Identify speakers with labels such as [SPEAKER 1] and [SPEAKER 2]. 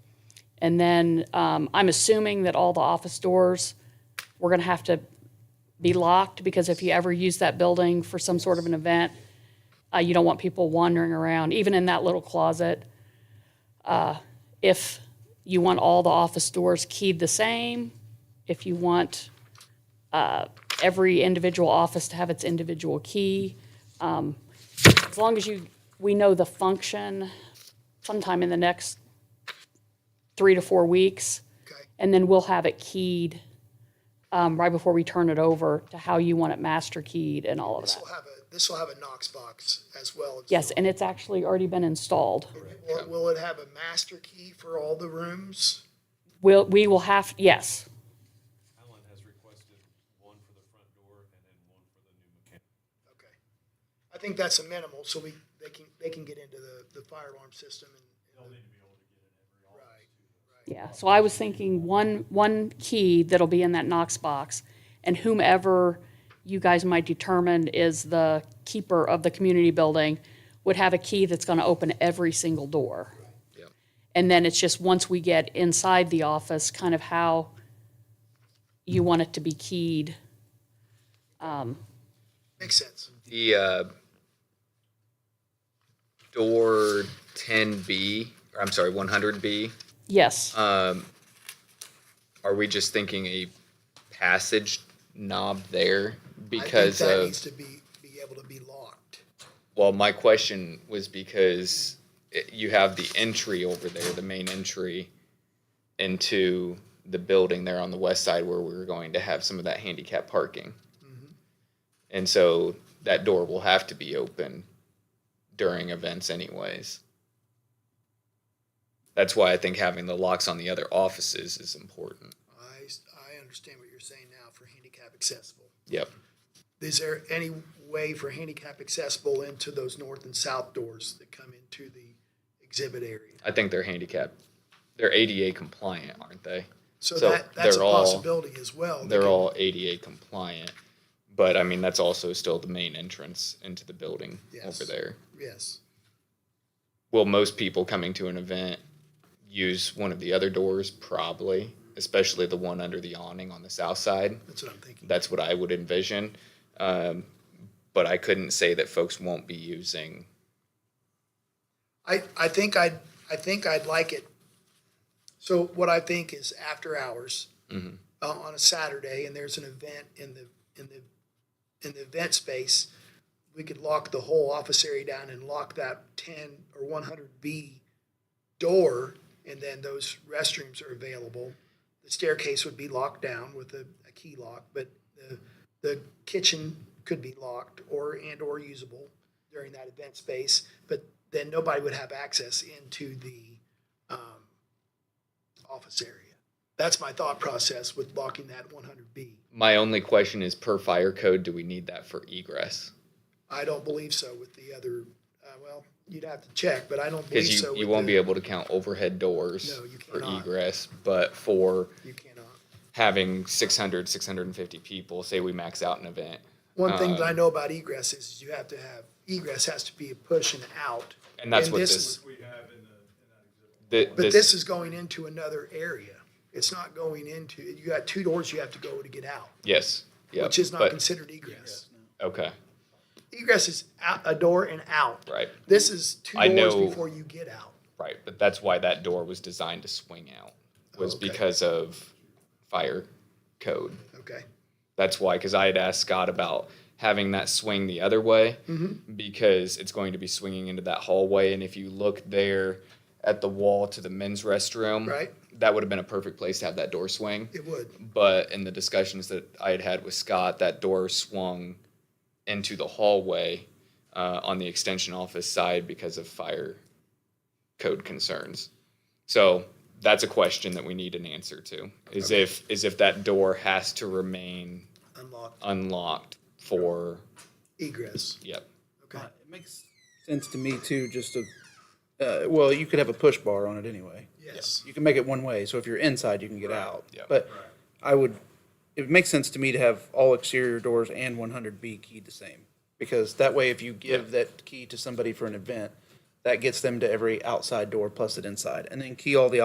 [SPEAKER 1] And then um, I'm assuming that all the office doors, we're going to have to be locked because if you ever use that building for some sort of an event, uh, you don't want people wandering around, even in that little closet. Uh, if you want all the office doors keyed the same, if you want uh, every individual office to have its individual key, um, as long as you we know the function sometime in the next three to four weeks,
[SPEAKER 2] Okay.
[SPEAKER 1] and then we'll have it keyed um, right before we turn it over to how you want it master keyed and all of
[SPEAKER 2] This
[SPEAKER 1] that.
[SPEAKER 2] will have a, this will have a Knox box as well.
[SPEAKER 1] Yes, and it's actually already been installed.
[SPEAKER 2] Will, will it have a master key for all the rooms?
[SPEAKER 1] We'll, we will have, yes,
[SPEAKER 3] Alan has requested one for the front door and then one for the new mechanic.
[SPEAKER 2] Okay. I think that's a minimal, so we, they can, they can get into the, the fire alarm system and. and the- Right.
[SPEAKER 1] yeah. So I was thinking one, one key that'll be in that Knox box, and whomever you guys might determine is the keeper of the community building would have a key that's going to open every single door. And then it's just, once we get inside the office, kind of how you want it to be keyed.
[SPEAKER 2] Makes sense.
[SPEAKER 4] The uh, door 10B, or I'm sorry, 100B,
[SPEAKER 1] Yes,
[SPEAKER 4] are we just thinking a passage knob there
[SPEAKER 2] I think
[SPEAKER 4] because
[SPEAKER 2] That
[SPEAKER 4] of.
[SPEAKER 2] needs to be, be able to be locked.
[SPEAKER 4] Well, my question was because it, you have the entry over there, the main entry into the building there on the west side where we were going to have some of that handicap parking. And so that door will have to be open during events, anyways. That's why I think having the locks on the other offices is important.
[SPEAKER 2] I, s- I understand what you're saying now for handicap accessible.
[SPEAKER 4] Yep.
[SPEAKER 2] Is there any way for handicap accessible into those north and south doors that come into the exhibit area?
[SPEAKER 4] I think they're handicapped. They're ADA compliant, aren't they?
[SPEAKER 2] So
[SPEAKER 4] So
[SPEAKER 2] that, that's a
[SPEAKER 4] they're all-
[SPEAKER 2] possibility as well.
[SPEAKER 4] they're all ADA compliant, but I mean, that's also still the main entrance into the building
[SPEAKER 2] Yes.
[SPEAKER 4] over there.
[SPEAKER 2] Yes.
[SPEAKER 4] Will most people coming to an event use one of the other doors? Probably, especially the one under the awning on the south side.
[SPEAKER 2] That's what I'm thinking.
[SPEAKER 4] That's what I would envision. Um, but I couldn't say that folks won't be using.
[SPEAKER 2] I, I think I'd, I think I'd like it. So what I think is after hours uh, on a Saturday, and there's an event in the in the in the event space, we could lock the whole office area down and lock that 10 or 100 B door, and then those restrooms are available. The staircase would be locked down with a, a key lock, but the the kitchen could be locked or and or usable during that event space, but then nobody would have access into the um, office area. That's my thought process with locking that 100B.
[SPEAKER 4] My only question is per fire code, do we need that for egress?
[SPEAKER 2] I don't believe so with the other, uh, well, you'd have to check, but I don't believe
[SPEAKER 4] Because
[SPEAKER 2] so.
[SPEAKER 4] you, you
[SPEAKER 2] with
[SPEAKER 4] won't
[SPEAKER 2] the-
[SPEAKER 4] be able to count overhead doors
[SPEAKER 2] No, you
[SPEAKER 4] for
[SPEAKER 2] cannot.
[SPEAKER 4] egress, but for
[SPEAKER 2] You cannot.
[SPEAKER 4] having 600 650 people say we max out an event
[SPEAKER 2] One thing
[SPEAKER 4] Uh,
[SPEAKER 2] that I know about egress is you have to have, egress has to be a push and out.
[SPEAKER 4] and that's what this,
[SPEAKER 2] is-
[SPEAKER 3] We have in the, in that exhibit.
[SPEAKER 4] thi-
[SPEAKER 2] But this is going into another area. It's not going into, you got two doors you have to go to get out,
[SPEAKER 4] yes yep,
[SPEAKER 2] which is not
[SPEAKER 4] but-
[SPEAKER 2] considered egress.
[SPEAKER 4] okay
[SPEAKER 2] Egress is out, a door and out.
[SPEAKER 4] right
[SPEAKER 2] This is two
[SPEAKER 4] I
[SPEAKER 2] doors
[SPEAKER 4] know-
[SPEAKER 2] before you get out.
[SPEAKER 4] right but that's why that door was designed to swing out was
[SPEAKER 2] Okay.
[SPEAKER 4] because of fire code
[SPEAKER 2] Okay.
[SPEAKER 4] that's why because i had asked scott about having that swing the other way
[SPEAKER 2] Mm-hmm.
[SPEAKER 4] because it's going to be swinging into that hallway and if you look there at the wall to the men's restroom
[SPEAKER 2] Right.
[SPEAKER 4] that would have been a perfect place to have that door swing
[SPEAKER 2] It would.
[SPEAKER 4] but in the discussions that I had had with Scott, that door swung into the hallway uh, on the extension office side because of fire code concerns. So that's a question that we need an answer to: is if is if that door has to remain
[SPEAKER 2] Unlock
[SPEAKER 4] unlocked for
[SPEAKER 2] egress.
[SPEAKER 4] yep.
[SPEAKER 2] Okay.
[SPEAKER 5] It makes sense to me too. Just to, uh, well, you could have a push bar on it anyway.
[SPEAKER 2] Yes.
[SPEAKER 5] You can make it one way, so if you're inside, you can get out.
[SPEAKER 4] yeah.
[SPEAKER 5] But I would. It makes sense to me to have all exterior doors and 100B keyed the same because that way, if you give that key to somebody for an event, that gets them to every outside door plus an inside, and then key all the